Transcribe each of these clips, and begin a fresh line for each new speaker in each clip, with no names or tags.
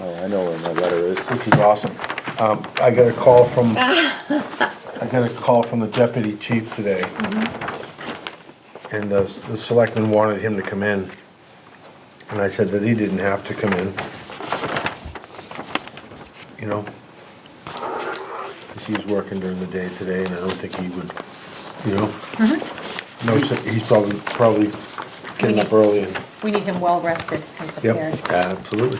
Oh, I know where my letter is.
which is awesome. Um, I got a call from, I got a call from the deputy chief today. And the, the selectman wanted him to come in. And I said that he didn't have to come in. You know? Cause he's working during the day today and I don't think he would, you know? No, so he's probably, probably getting up early and,
We need him well rested and prepared.
yep, absolutely.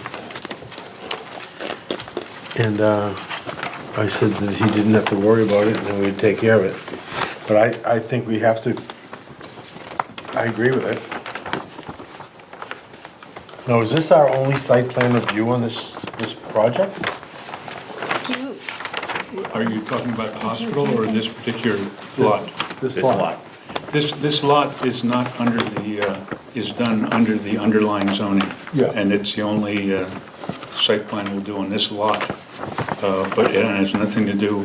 And, uh, I said that he didn't have to worry about it and then we'd take care of it. But I, I think we have to, I agree with it. Now, is this our only site plan review on this, this project?
Are you talking about the hospital or this particular lot?
This
This
lot?
lot.
This, this lot is not under the, uh, is done under the underlying zoning.
Yeah.
And it's the only uh, site plan we'll do on this lot. Uh, But it has nothing to do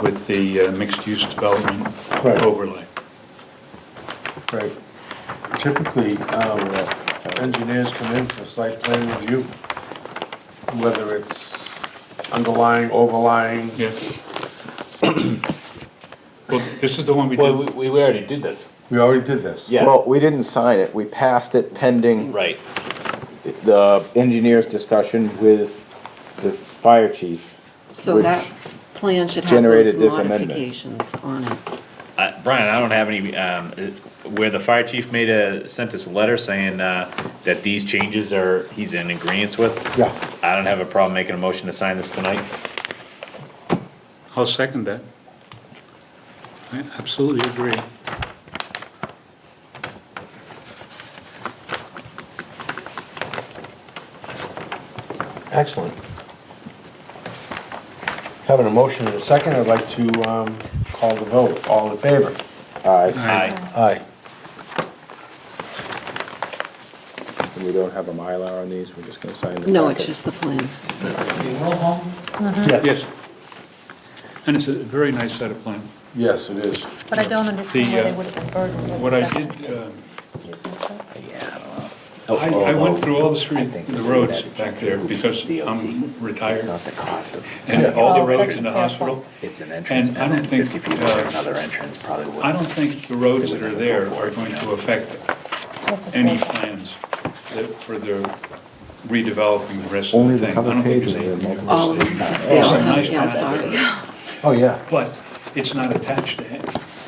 with the uh, mixed-use development
Right.
overlay.
Right. Typically, um, engineers come in for site plan review, whether it's underlying, overlying.
Yeah. Well, this is the one we
Well,
did,
we, we already did this.
We already did this.
Yeah.
Well, we didn't sign it. We passed it pending
Right.
the engineer's discussion with the fire chief.
So
which-
that plan should have
generated this
those
amendment.
modifications on it.
Uh, Brian, I don't have any, um, uh, where the fire chief made a, sent us a letter saying, uh, that these changes are, he's in agreeance with.
Yeah.
I don't have a problem making a motion to sign this tonight.
I'll second that. I absolutely agree.
Excellent. Having a motion in a second, I'd like to um, call the vote. All in favor?
Aye,
Aye.
Aye.
And we don't have a Mylar on these. We're just gonna sign the.
No, it's
packet.
just the plan.
Yes. And it's a very nice set of plans.
Yes, it is.
But I don't understand why
The, uh,
they would have been burdened with
What I
septic
did,
tanks.
um,
Oh,
I, I went through all the street, the roads back there because I'm retired
the cost of,
and all the
Oh,
roads
that's
in the
a fair
hospital.
it's an
And I don't think, uh,
entrance probably would.
I don't think the roads that are there are going to affect
That's a fair
any
point.
plans that- for the redeveloping the rest of
Only the
the thing. I
cover
don't think
page
there's
is the
anything
All,
to
they
see.
all
Some
have,
nice
yeah, I'm
plans out
sorry.
there,
Oh, yeah.
But it's not attached to it,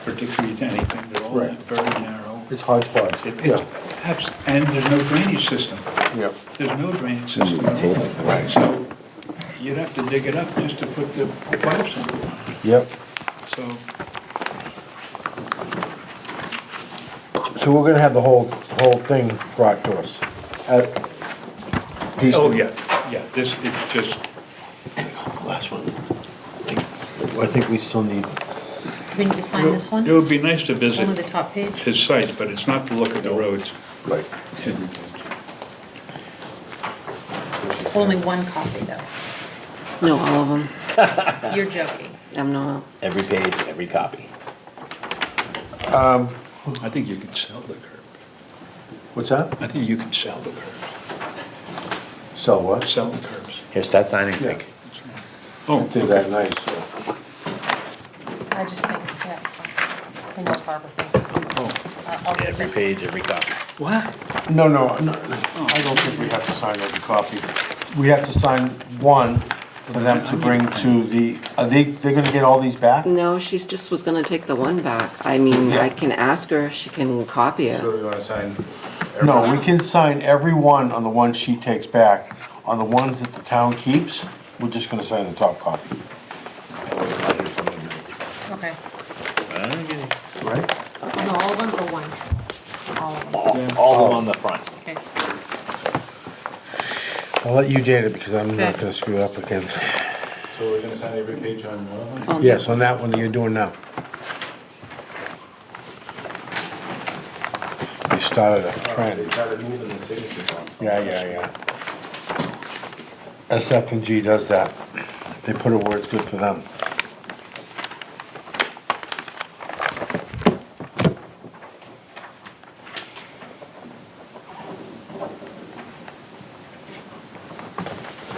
particularly to anything. They're all
Right.
very narrow.
It's hodgepodge.
It-
Yeah.
It's, abs- and there's no drainage system.
Yeah.
There's no drainage system at all. So you'd have to dig it up just to put the pipes in,
Yep.
so.
So we're gonna have the whole, whole thing brought to us. Uh,
Oh,
piecemeal.
yeah, yeah, this, it's just,
Last one. I think we still need,
We need to sign this
it
one,
would be nice to
only the
visit
top page.
his site, but it's not to look at the roads.
like,
Only one copy though.
no, all of them.
You're joking.
I'm not,
Every page, every copy.
I think you could sell the curb.
what's that?
I think you could sell the curbs,
Sell what?
sell the curbs.
Here, start signing,
Yeah.
Zink.
Oh,
Did
okay.
that nice. yeah.
I just think, yeah, we know Barbara thinks.
Oh.
Uh, I'll- I'll
Every
second.
page, every copy.
No, no, no, I don't think we have to sign every copy. We have to sign one for them to bring to the, are they, they're gonna get all these back?
no, she's just was gonna take the one back. I mean, I can ask her if she can copy it.
we wanna sign.
No, we can sign every one on the one she takes back. On the ones that the town keeps, we're just gonna sign the top copy,
Okay.
right?
No, all of them or one? All of them,
All, all of them on the front.
okay.
I'll let you date it because I'm not
Okay.
gonna screw it up again.
So we're gonna sign every page on one of them?
Um,
Yes, on that one that you're doing now. You started a trend.
started moving the signature
Yeah, yeah, yeah. SF and G does that. They put a where it's good for them.